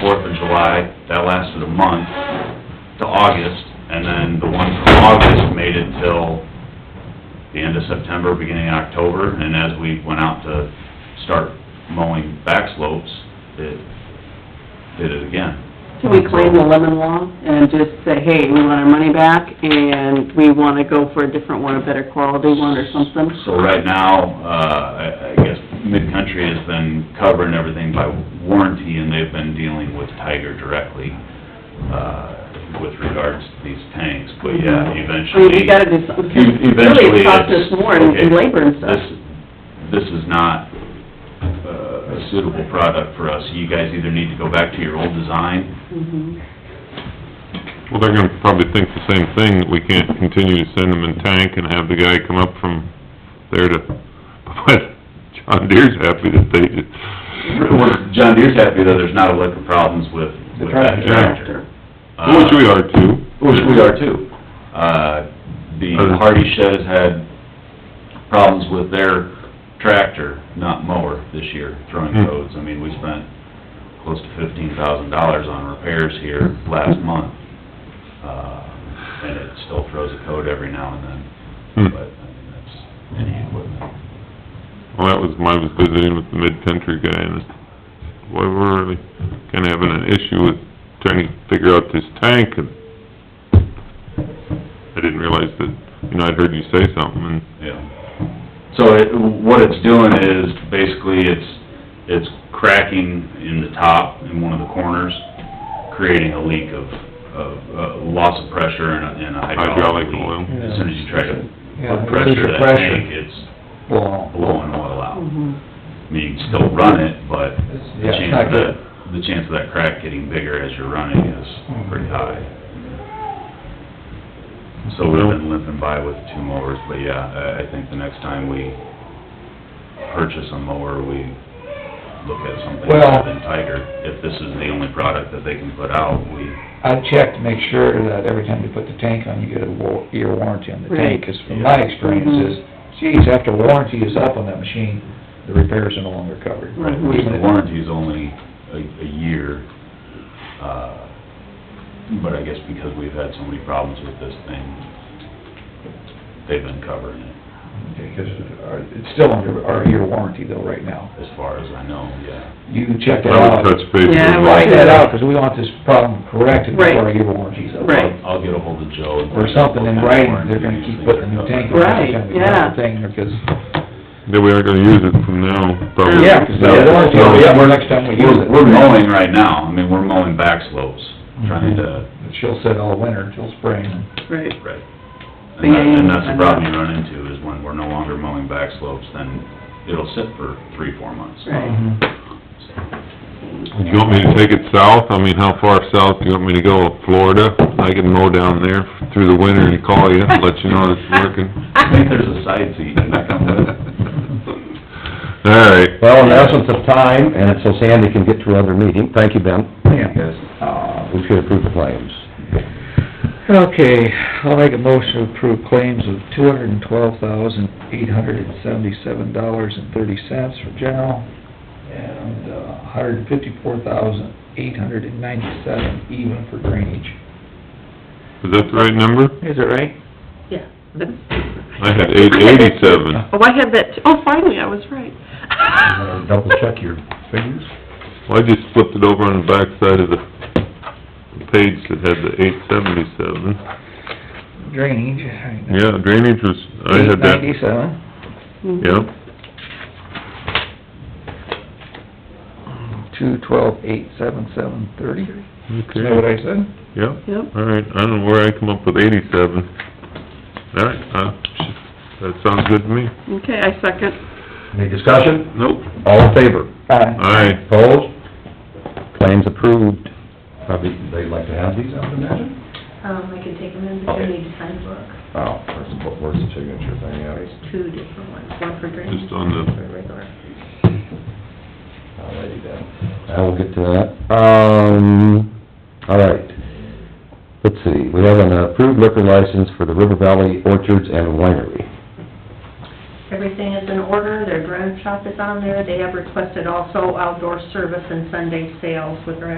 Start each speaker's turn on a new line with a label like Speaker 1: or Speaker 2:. Speaker 1: Fourth of July, that lasted a month, to August, and then the one from August made it till the end of September, beginning of October, and as we went out to start mowing back slopes, it did it again.
Speaker 2: Can we claim the lemon law and just say, hey, we want our money back and we want to go for a different one, a better quality one or something?
Speaker 1: So right now, uh, I, I guess Mid-Country has been covering everything by warranty, and they've been dealing with Tiger directly, uh, with regards to these tanks, but yeah,
Speaker 2: I mean,
Speaker 1: eventually.
Speaker 2: you gotta do something.
Speaker 1: E- Eventually,
Speaker 2: Really, it costs
Speaker 1: it's-
Speaker 2: us more in in
Speaker 1: okay,
Speaker 2: labor and stuff.
Speaker 1: This, this is not uh, a suitable product for us, you guys either need to go back to your old design,
Speaker 2: Mhm.
Speaker 3: Well, they're gonna probably think the same thing, that we can't continue to send them in tank and have the guy come up from there to, but John Deere's happy that they did.
Speaker 1: We're- John Deere's happy that there's not a lick of problems with,
Speaker 4: The
Speaker 1: with that
Speaker 4: tractor.
Speaker 1: tractor. Uh,
Speaker 3: Which we are too.
Speaker 1: Which we are too. Uh, the Hardy Shed has had problems with their tractor, not mower, this year, throwing
Speaker 3: Hmm.
Speaker 1: codes. I mean, we spent close to fifteen thousand dollars on repairs here last month. Uh, and it still throws a code every now and
Speaker 3: Hmm.
Speaker 1: then, but, I mean, that's any equipment.
Speaker 3: Well, that was, when I was visiting with the mid-country guy, and boy, we're really kinda having an issue with trying to figure out this tank, and I didn't realize that, you know, I'd heard you say something, and
Speaker 1: Yeah. So it, what it's doing is, basically, it's, it's cracking in the top in one of the corners, creating a leak of, of, uh, loss of pressure and a, and a hydraulic
Speaker 3: hydraulic
Speaker 1: leak.
Speaker 3: oil.
Speaker 1: As soon as you try to
Speaker 4: Yeah,
Speaker 1: put pressure to that tank,
Speaker 4: pressure.
Speaker 1: it's
Speaker 4: Well,
Speaker 1: blowing oil out.
Speaker 2: Mhm.
Speaker 1: I mean, you can still run it, but the
Speaker 4: Yeah, it's
Speaker 1: chance
Speaker 4: not
Speaker 1: of
Speaker 4: good.
Speaker 1: that, the chance of that crack getting bigger as you're running is pretty high. So we've been limping by with two mowers, but yeah, I, I think the next time we purchase a mower, we look at something
Speaker 4: Well-
Speaker 1: other than Tiger. If this is the only product that they can put out, we,
Speaker 4: I check to make sure that every time you put the tank on, you get a wa- year warranty on the tank.
Speaker 2: Right. Mm-hmm.
Speaker 4: Because from my experience is, geez, after warranty is up on that machine, the repairs are no longer covered.
Speaker 2: Right.
Speaker 4: Even
Speaker 1: the
Speaker 4: if-
Speaker 1: warranty's only a, a year. Uh, but I guess because we've had so many problems with this thing, they've been covering it.
Speaker 4: Because our- it's still under our year warranty though right now.
Speaker 1: As far as I know, yeah.
Speaker 4: You can check that
Speaker 3: I would
Speaker 4: out.
Speaker 3: touch base with
Speaker 2: Yeah, I
Speaker 3: them.
Speaker 2: would.
Speaker 4: Find that out, because we want this problem corrected
Speaker 2: Right.
Speaker 4: before our year warranty's up.
Speaker 2: Right.
Speaker 1: I'll get ahold of Joe. and-
Speaker 4: Or something in writing, they're gonna keep putting a new tank on every time we
Speaker 2: Right, yeah.
Speaker 4: run the thing, because
Speaker 3: That we aren't gonna use it from now, probably.
Speaker 4: Yeah, 'cause that warranty will be up next time we use
Speaker 1: We're,
Speaker 4: it. Mm-hmm.
Speaker 1: we're mowing right now, I mean, we're mowing back slopes, trying to,
Speaker 4: she'll sit all winter until spring.
Speaker 2: Right.
Speaker 1: right. And that- and that's the
Speaker 2: Yeah.
Speaker 1: problem you run into, is when we're no longer mowing back slopes, then it'll sit for three, four months.
Speaker 2: Right.
Speaker 4: Mm-hmm.
Speaker 3: Do you want me to take it south? I mean, how far south do you want me to go? Florida? I can mow down there through the winter and call you, let you know it's working.
Speaker 1: I think there's a side seat, and I come with
Speaker 3: All right.
Speaker 5: Well, in essence of time, and so Sandy can get to her other meeting, thank you, Ben,
Speaker 4: Yeah.
Speaker 5: uh, we should approve the claims.
Speaker 4: Okay, I'll make a motion to approve claims of two hundred and twelve thousand, eight hundred and seventy-seven dollars and thirty cents for general, and uh hundred and fifty-four thousand, eight hundred and ninety-seven even for drainage.
Speaker 3: Is that the right number?
Speaker 4: Is that right?
Speaker 2: Yeah.
Speaker 3: I had eight eighty-seven.
Speaker 2: Oh, I had that, t- oh, finally, I was right.
Speaker 5: Double check your figures.
Speaker 3: Well, I just flipped it over on the back side of the page that had the eight seventy-seven.
Speaker 4: Drainage.
Speaker 3: Yeah, drainage was, I had that,
Speaker 4: Ninety-seven.
Speaker 3: yeah.
Speaker 4: Two twelve, eight seven seven thirty. Is that what
Speaker 3: Okay,
Speaker 4: I said?
Speaker 3: yeah.
Speaker 2: Yep.
Speaker 3: All right, I don't know where I come up with eighty-seven. All right, uh, that sounds good to me.
Speaker 2: Okay, I second.
Speaker 5: Any discussion?
Speaker 3: Nope.
Speaker 5: All in favor?
Speaker 4: Uh,
Speaker 3: Aye.
Speaker 5: Opposed? Claims approved. Probably, they'd like to have these, I would imagine?
Speaker 6: Um, I can take them in, but I
Speaker 5: Okay.
Speaker 6: need to sign book,
Speaker 5: Oh, where's the, where's the signature thing at?
Speaker 6: two different ones, one for drainage.
Speaker 3: Just on the-
Speaker 6: one For regular.
Speaker 5: Alrighty then. I will get to that. Um, all right. Let's see, we have an approved liquor license for the River Valley Orchards and Winery.
Speaker 6: Everything is in order, their drum shop is on there, they have requested also outdoor service and Sunday sales with their